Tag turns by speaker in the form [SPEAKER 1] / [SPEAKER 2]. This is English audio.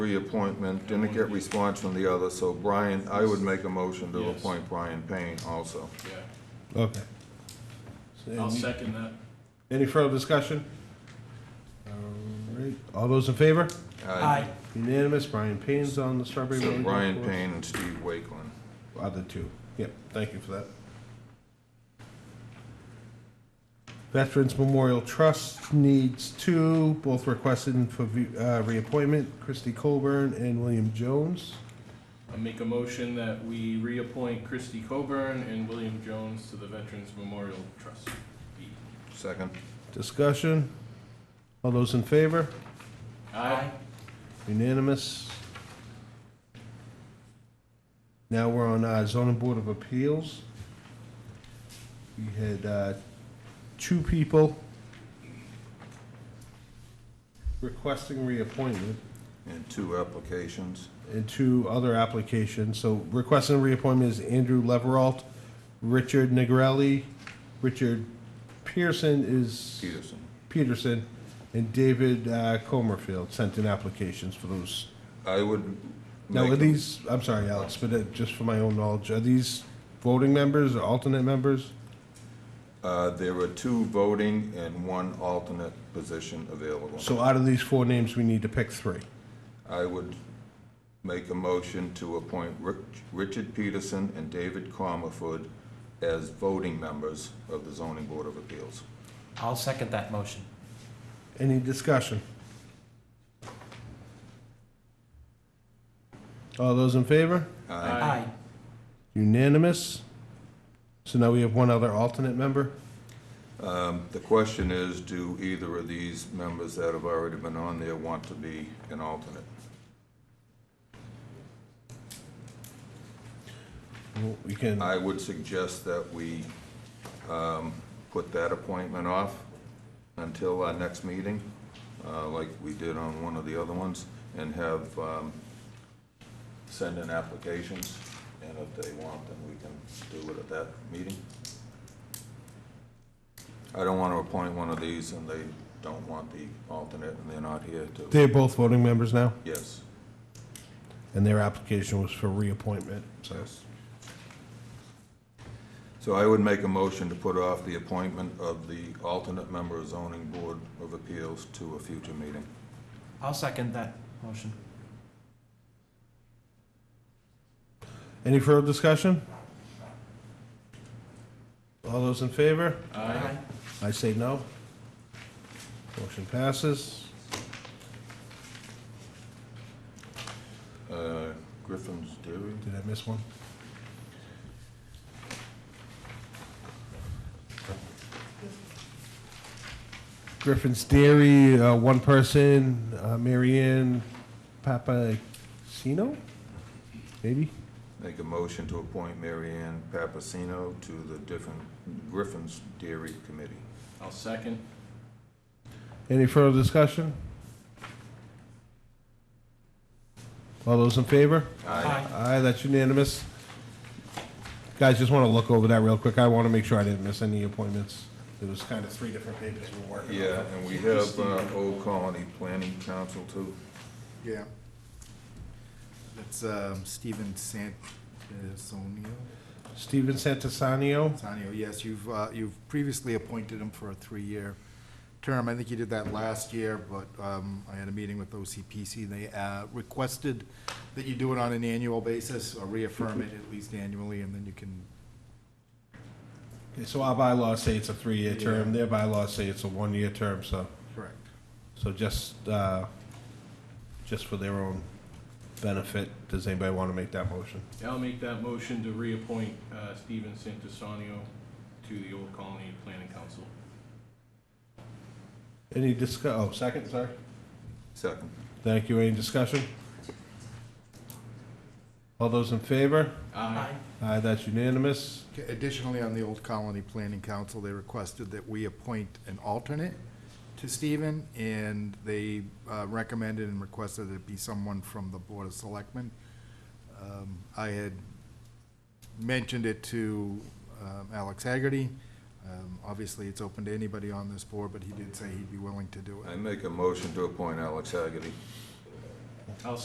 [SPEAKER 1] reappointment, didn't get response from the other, so Brian, I would make a motion to appoint Brian Payne also.
[SPEAKER 2] Yeah,
[SPEAKER 3] Okay.
[SPEAKER 2] I'll second that.
[SPEAKER 3] Any further discussion? All right, all those in favor?
[SPEAKER 1] Aye.
[SPEAKER 3] Unanimous, Brian Payne's on the Strawberry Valley
[SPEAKER 1] So
[SPEAKER 3] Golf
[SPEAKER 1] Brian
[SPEAKER 3] Course.
[SPEAKER 1] Payne and Steve Wakeland.
[SPEAKER 3] Other two, yep, thank you for that. Veterans Memorial Trust needs two, both requested for view- uh, reappointment, Christy Colburn and William Jones.
[SPEAKER 2] I make a motion that we reappoint Christy Coburn and William Jones to the Veterans Memorial Trust.
[SPEAKER 1] Second.
[SPEAKER 3] Discussion, all those in favor?
[SPEAKER 2] Aye.
[SPEAKER 3] Unanimous. Now we're on uh, zoning board of appeals. We had uh, two people requesting reappointment
[SPEAKER 1] And two applications.
[SPEAKER 3] and two other applications. So requesting reappointment is Andrew Leveralt, Richard Negrelli, Richard Pearson is
[SPEAKER 1] Peterson.
[SPEAKER 3] Peterson, and David uh, Comerfield sent in applications for those
[SPEAKER 1] I would
[SPEAKER 3] now,
[SPEAKER 1] make
[SPEAKER 3] are
[SPEAKER 1] a-
[SPEAKER 3] these, I'm sorry, Alex, but uh, just for my own knowledge, are these voting members or alternate members?
[SPEAKER 1] Uh, there were two voting and one alternate position available.
[SPEAKER 3] So out of these four names, we need to pick three.
[SPEAKER 1] I would make a motion to appoint Rich- Richard Peterson and David Comerford as voting members of the zoning board of appeals.
[SPEAKER 4] I'll second that motion.
[SPEAKER 3] Any discussion? All those in favor?
[SPEAKER 2] Aye.
[SPEAKER 3] Unanimous? So now we have one other alternate member?
[SPEAKER 1] Um, The question is, do either of these members that have already been on there want to be an alternate?
[SPEAKER 3] Well, We can,
[SPEAKER 1] I would suggest that we um, put that appointment off until our next meeting, uh, like we did on one of the other ones, and have, um, send in applications, and if they want, then we can do it at that meeting. I don't want to appoint one of these and they don't want the alternate and they're not here to,
[SPEAKER 3] they're both voting members now,
[SPEAKER 1] yes,
[SPEAKER 3] and their application was for reappointment, so.
[SPEAKER 1] yes. So I would make a motion to put off the appointment of the alternate member of zoning board of appeals to a future meeting.
[SPEAKER 4] I'll second that motion.
[SPEAKER 3] Any further discussion? All those in favor?
[SPEAKER 2] Aye.
[SPEAKER 3] I say no. Motion passes.
[SPEAKER 1] Uh, Griffin's Dairy?
[SPEAKER 3] Did I miss one? Griffin's Dairy, uh, one person, uh, Mary Ann Papacino, maybe?
[SPEAKER 1] Make a motion to appoint Mary Ann Papasino to the different Griffin's Dairy Committee.
[SPEAKER 2] I'll second.
[SPEAKER 3] Any further discussion? All those in favor? Aye, that's unanimous. Guys, just want to look over that real quick. I want to make sure I didn't miss any appointments. There was kind of three different papers we were working on.
[SPEAKER 1] Yeah, and we have uh, Old Colony Planning Council too.
[SPEAKER 5] Yeah. That's um, Stephen Santisonio.
[SPEAKER 3] Steven Santisanio,
[SPEAKER 5] Sanio, yes, you've, uh, you've previously appointed him for a three-year term. I think you did that last year, but um, I had a meeting with OCPC. They uh, requested that you do it on an annual basis or reaffirm it at least annually, and then you can,
[SPEAKER 3] Okay, so our bylaws say it's a three-year term, their bylaws say it's a one-year term, so,
[SPEAKER 5] correct.
[SPEAKER 3] so just, uh, just for their own benefit, does anybody want to make that motion?
[SPEAKER 2] I'll make that motion to reappoint uh, Stephen Santisonio to the Old Colony Planning Council.
[SPEAKER 3] Any discuss, oh, second, sorry?
[SPEAKER 1] Second.
[SPEAKER 3] Thank you, any discussion? All those in favor?
[SPEAKER 2] Aye.
[SPEAKER 3] Aye, that's unanimous.
[SPEAKER 5] Okay, Additionally, on the Old Colony Planning Council, they requested that we appoint an alternate to Stephen, and they uh, recommended and requested it be someone from the Board of Selectmen. Um, I had mentioned it to um, Alex Haggerty. Um, Obviously, it's open to anybody on this board, but he did say he'd be willing to do it.
[SPEAKER 1] I make a motion to appoint Alex Haggerty.
[SPEAKER 2] I'll